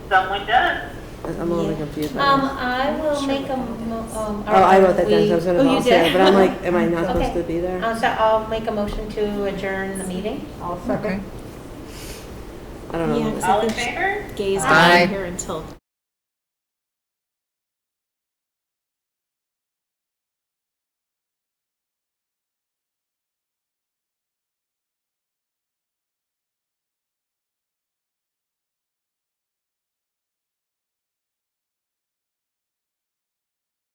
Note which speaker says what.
Speaker 1: someone does.
Speaker 2: I'm a little confused by
Speaker 3: Um,
Speaker 2: that.
Speaker 3: I will make a, mo- um.
Speaker 2: Oh, I wrote that down, so I was gonna
Speaker 3: we- oh, you
Speaker 2: volunteer,
Speaker 3: did?
Speaker 2: but I'm like, am I not supposed
Speaker 3: Okay.
Speaker 2: to be there?
Speaker 3: Uh, so I'll make a motion to adjourn the meeting.
Speaker 4: Okay.
Speaker 2: I don't know.
Speaker 1: All in favor?
Speaker 5: Gays
Speaker 1: Aye.
Speaker 5: aren't here until